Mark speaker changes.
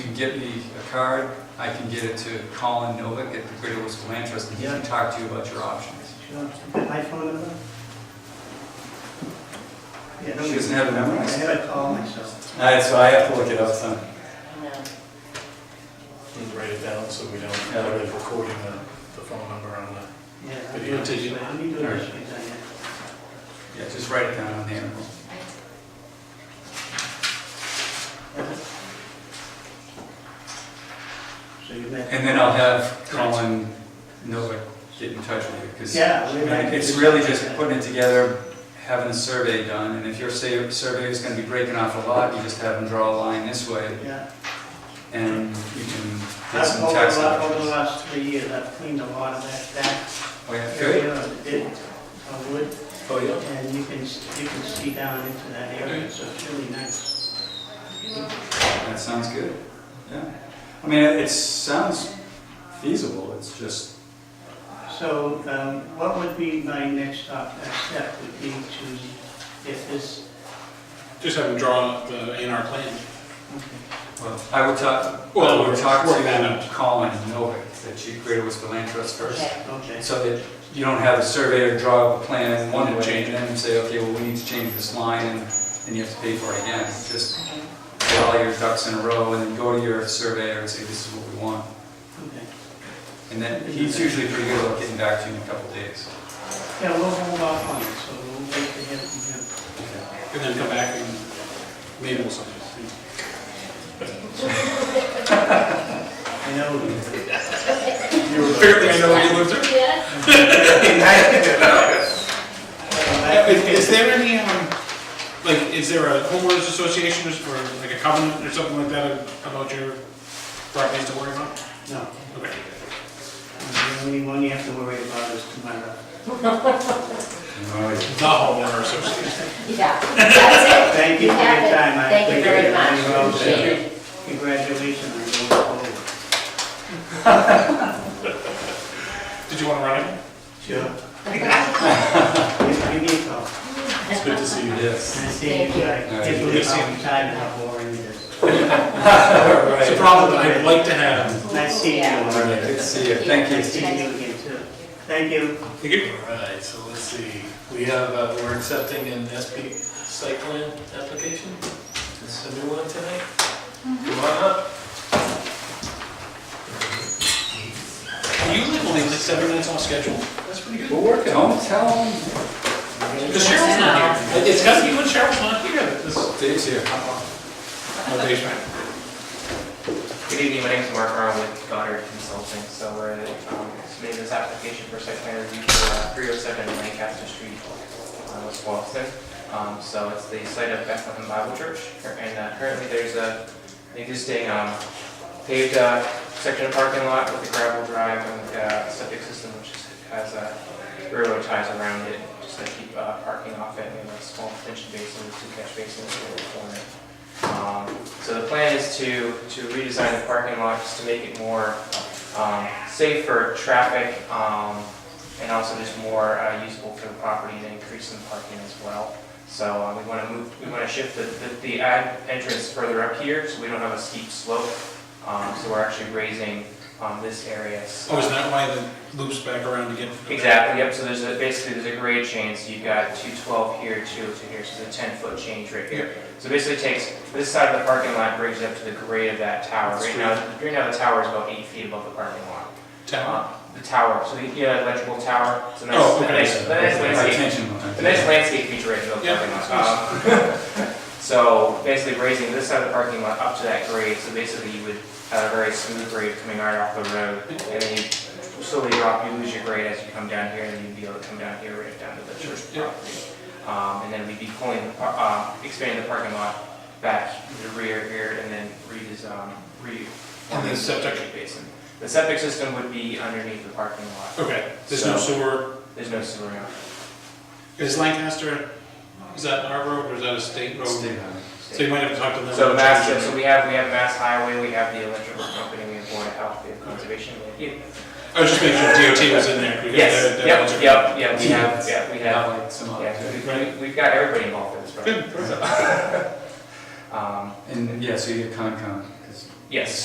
Speaker 1: get me a card, I can get it to Colin Novick at the Greater Worcester Land Trust, and he can talk to you about your options.
Speaker 2: iPhone number? Yeah,
Speaker 1: She doesn't have a number.
Speaker 2: I had a call myself.
Speaker 1: All right, so I have to look it up, son.
Speaker 3: No.
Speaker 4: And write it down so we don't
Speaker 1: Yeah.
Speaker 4: have it recording the, the phone number on the.
Speaker 2: Yeah. I'll
Speaker 4: But
Speaker 2: do
Speaker 4: you
Speaker 2: it
Speaker 4: did
Speaker 2: this
Speaker 4: you-
Speaker 2: way. Let me do it this way, Diane.
Speaker 1: Yeah, just write it down on the envelope.
Speaker 2: So you met.
Speaker 1: And then I'll have Colin Novick get in touch with you, because
Speaker 2: Yeah. we met.
Speaker 1: it's really just putting it together, having a survey done, and if your sa- survey is gonna be breaking off a lot, you just have them draw a line this way,
Speaker 2: Yeah.
Speaker 1: and you can get
Speaker 2: I've,
Speaker 1: some
Speaker 2: over,
Speaker 1: tax
Speaker 2: the- over the
Speaker 1: options.
Speaker 2: last three years, I've cleaned a lot of that, that
Speaker 1: Oh, yeah, good.
Speaker 2: area of the ditch, of wood,
Speaker 1: Oh, yeah.
Speaker 2: and you can, you can see down into that area, so it's really nice.
Speaker 1: That sounds good, yeah. I mean, it it sounds feasible, it's just,
Speaker 2: So, um, what would be my next op- uh, step would be to, if this,
Speaker 5: Just have them draw up the A and R plan.
Speaker 1: well, I would talk,
Speaker 5: Well,
Speaker 1: I would talk
Speaker 5: work that
Speaker 1: to
Speaker 5: out.
Speaker 1: Colin Novick, the chief creator was the land trust first.
Speaker 3: Okay,
Speaker 2: okay,
Speaker 1: So that you don't have a surveyor draw up a plan in one
Speaker 5: And
Speaker 1: way
Speaker 5: change
Speaker 1: and then say, okay, well, we need to change this line and then you have to pay for it again. Just
Speaker 3: okay.
Speaker 1: get all your ducks in a row and then go to your surveyor and say, this is what we want.
Speaker 2: okay.
Speaker 1: And then he's usually pretty good about getting back to you in a couple of days.
Speaker 2: Yeah, we'll hold off on it, so we'll wait to hear from him.
Speaker 5: And then come back and maybe we'll sign it.
Speaker 2: I know, you-
Speaker 5: Apparently I know what you lived through. Is is there any, um, like, is there a homeowners association or or like a covenant or something like that about your properties to worry about?
Speaker 2: no,
Speaker 5: Okay.
Speaker 2: the only one you have to worry about is tomorrow.
Speaker 5: The homeowner association.
Speaker 3: Yeah, that's it.
Speaker 2: Thank you for your
Speaker 3: have it.
Speaker 2: time. I
Speaker 3: Thank you very
Speaker 2: appreciate it.
Speaker 3: much,
Speaker 2: You're all set.
Speaker 3: appreciate it.
Speaker 2: Congratulations on going forward.
Speaker 5: Did you want to run it?
Speaker 2: Sure. Give me a call.
Speaker 4: It's good to see you.
Speaker 1: Yes.
Speaker 2: And see if
Speaker 3: Thank you.
Speaker 2: you, if you time how boring it is.
Speaker 5: It's a problem that I'd like to have.
Speaker 2: Nice seeing you.
Speaker 3: Yeah.
Speaker 2: All right.
Speaker 1: Good to see you, thank you.
Speaker 2: Nice seeing you again too. Thank you.
Speaker 5: Thank you.
Speaker 4: All right, so let's see, we have, uh, we're accepting an SP site plan application, Is this a new one tonight. Come on up.
Speaker 5: You live only like seven minutes off schedule. That's pretty good.
Speaker 1: We'll work it. Don't tell him.
Speaker 5: Because Cheryl's not here. It's got to be when Cheryl's not here. that This
Speaker 1: Dave's here.
Speaker 6: Good evening, my name is Mark Aron with Goddard Consulting, so we're um, submitting this application for site plan review for uh, 307 Lancaster Street, uh, West Boylston. Um, So it's the site of Bethlehem Bible Church, and uh, currently there's a an existing um, paved uh, section of parking lot with a gravel drive and uh, septic system which is- has uh, railroad ties around it, just to keep uh, parking off it, and a small detention basin with two catch basins in the corner. Um, So the plan is to, to redesign the parking lot just to make it more um, safe for traffic um, and also just more uh, usable for the property and increase some parking as well. So uh, we want to move, we want to shift the, the- the ad- entrance further up here so we don't have a steep slope. Um, So we're actually raising um, this area.
Speaker 5: Oh, is that why the loop's back around again?
Speaker 6: Exactly, yep, so there's a, basically, there's a grade change, so you've got two twelve here, two to here, so there's a ten foot change right here. So basically it takes, this side of the parking lot brings it up to the grade of that tower, right now, right now the tower is about eight feet above the parking lot.
Speaker 5: Town.
Speaker 6: Uh, The tower, so the, yeah, electrical tower, it's a nice,
Speaker 5: Oh,
Speaker 6: a
Speaker 5: okay.
Speaker 6: nice, a nice
Speaker 1: My
Speaker 6: landscape
Speaker 1: attention.
Speaker 6: the nice landscape feature right here,
Speaker 5: Yeah.
Speaker 6: parking lot. Um, So basically raising this side of the parking lot up to that grade, so basically you would have a very smooth grade coming right off the road. And then you slowly drop, you lose your grade as you come down here, and then you'd be able to come down here right down to the church
Speaker 5: Yeah.
Speaker 6: property. Um, And then we'd be pulling, the par- uh, expanding the parking lot back to the rear here, and then redesign, re.
Speaker 5: And then septic.
Speaker 6: Basin. The septic system would be underneath the parking lot.
Speaker 5: Okay, there's no sewer.
Speaker 6: There's no sewer now.
Speaker 5: Is Lancaster, is that our road or is that a state road?
Speaker 1: Stay on it.
Speaker 5: So you might have to talk to them.
Speaker 6: So Mass, so we have, we have Mass Highway, we have the electrical company, we have Board of Health, we have Conservation. we have-
Speaker 5: I was just making sure DOT was in there. because they're-
Speaker 6: Yes,
Speaker 5: they're
Speaker 6: yep,
Speaker 5: eligible.
Speaker 6: yep, yep, we have, yeah, we have,
Speaker 1: Yeah, like some other-
Speaker 6: yeah, we- we- we've got everybody involved in this
Speaker 5: Good,
Speaker 6: project.
Speaker 5: perfect.
Speaker 6: Um,
Speaker 1: And, yeah, so you get Concom, 'cause
Speaker 6: Yes,